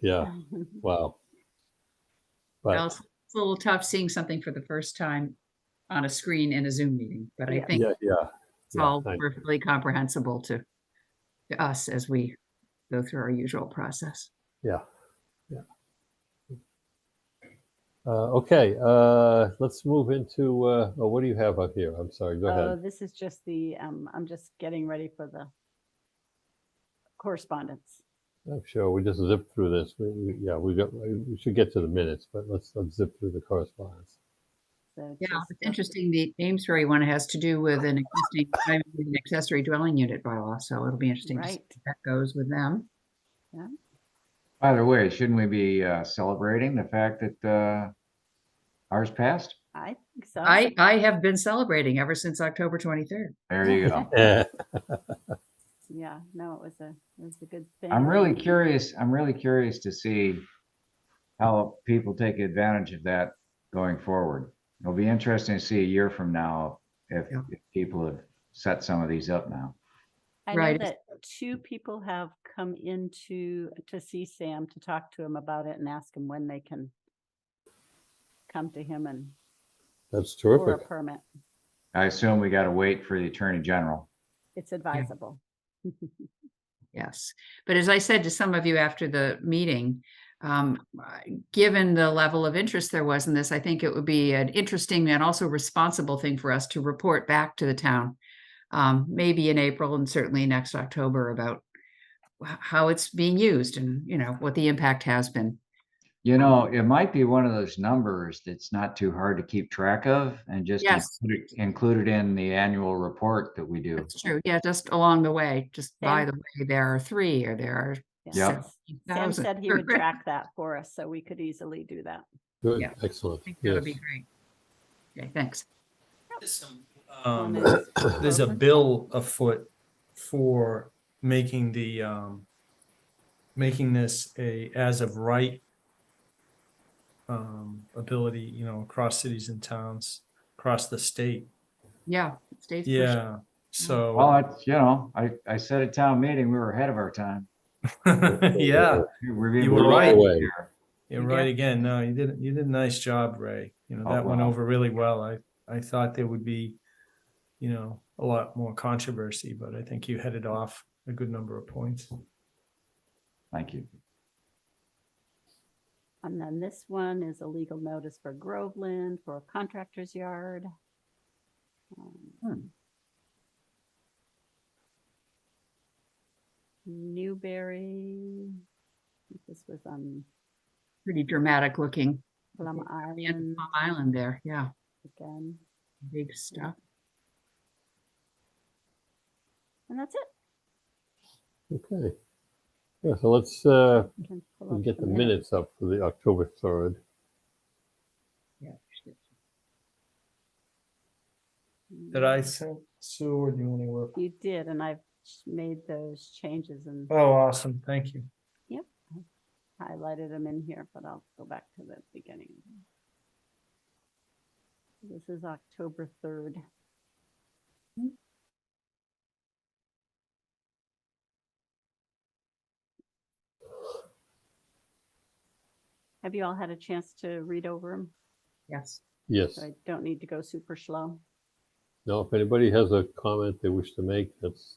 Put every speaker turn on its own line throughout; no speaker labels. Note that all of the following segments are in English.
Yeah. Wow.
Well,
But
It's it's a little tough seeing something for the first time on a screen in a Zoom meeting, but I
Yeah.
think
yeah, yeah.
it's all
I-
perfectly comprehensible to, to us as we go through our usual process.
Yeah, yeah. Uh, okay, uh, let's move into, uh, oh, what do you have up here? I'm sorry, go
Oh,
ahead.
this is just the, um, I'm just getting ready for the correspondence.
Uh,
I'm sure we just zipped through this. We, we, yeah, we got, we should get to the minutes, but let's, let's zip through the correspondence.
So
Yeah,
just
it's
the-
interesting. The Amesbury one has to do with an existing primary and accessory dwelling unit bylaw, so it'll be interesting to see
Right.
how that goes with them.
By the way, shouldn't we be uh, celebrating the fact that uh, ours passed?
I think so.
I, uh, I have been celebrating ever since October 23rd.
There you go.
Eh,
Yeah, no, it was a, it was a good thing.
I'm really curious, I'm really curious to see how people take advantage of that going forward. It'll be interesting to see a year from now if
Yeah.
if people have set some of these up now.
I know
Right.
that two people have come into, to see Sam, to talk to him about it and ask him when they can come to him and
That's
for a
terrific.
permit.
I assume we got to wait for the Attorney General.
It's advisable.
Yes, but as I said to some of you after the meeting, um, I- given the level of interest there was in this, I think it would be an interesting and also responsible thing for us to report back to the town. Um, maybe in April and certainly next October about wh- how it's being used and, you know, what the impact has been.
You know, it might be one of those numbers that's not too hard to keep track of and just
Yes.
include it- include it in the annual report that we do.
That's true. Yeah, just along the way, just by
Sam-
the way, there are three or there are.
Yeah.
Yes. Sam
1,000.
said he would track that for us, so we could easily do that.
Good,
Yeah.
excellent.
I think that
Yes.
would be great. Okay, thanks.
There's some,
On
um,
the-
there's a
Open.
bill afoot for making the, um, making this a as of right um, ability, you know, across cities and towns, across the state.
Yeah. State's pushing.
Yeah, so,
Well, it's, you know, I, I said at town meeting, we were ahead of our time.
yeah,
We're being
You were
blown
right.
away here.
you're right again. No, you did, you did a nice job, Ray. You know,
Oh,
that went
wow.
over really well. I, I thought there would be, you know, a lot more controversy, but I think you headed off a good number of points.
Thank you.
And then this one is a legal notice for Groveland for a contractor's yard. Um,
Hmm.
Newberry. I think This was on
Pretty dramatic looking. Mm.
Plum
Yeah, Palm
Island
Island there, yeah,
again.
big stuff.
And that's it.
Okay. Yeah, so let's, uh,
You can pull
we
up
get the minutes up for the October 3rd.
Yeah.
Did I send Sue or do you want to work?
You did, and I've ch- made those changes and
Oh, awesome. Thank you.
highlighted them in here, but I'll go back to the beginning. This is October 3rd. Have you all had a chance to read over them?
Yes,
Yes.
So I don't need to go super slow.
Now, if anybody has a comment they wish to make, let's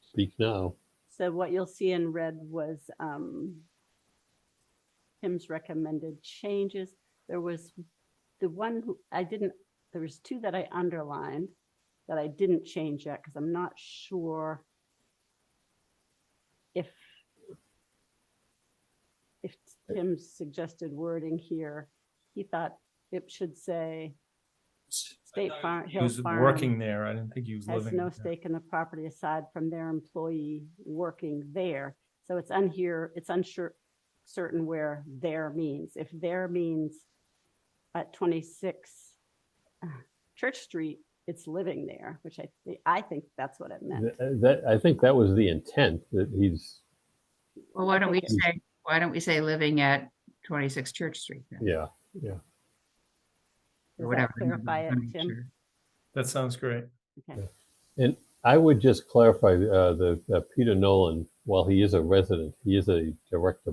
speak now.
So what you'll see in red was um, Tim's recommended changes. There was the one who- I didn't, there was two that I underlined that I didn't change yet because I'm not sure if if Tim's suggested wording here, he thought it should say State Farm,
He
Hill
was
Farm
working there. I didn't think he was living.
has no
there.
stake in the property aside from their employee working there. So it's unhere, it's unsure, certain where there means. If there means at 26 uh, Church Street, it's living there, which I, thi- I think that's what it meant.
Th- That, I think that was the intent that he's,
well, why don't we
think it-
say, why don't we say living at twenty-six Church Street? then,
yeah.
or
Does that
whatever Mm-hmm. the number
clarify
is,
it,
I'm not
Tim?
sure.
That sounds great.
I would just clarify, uh, the, uh, Peter Nolan, while he is a resident, he is a director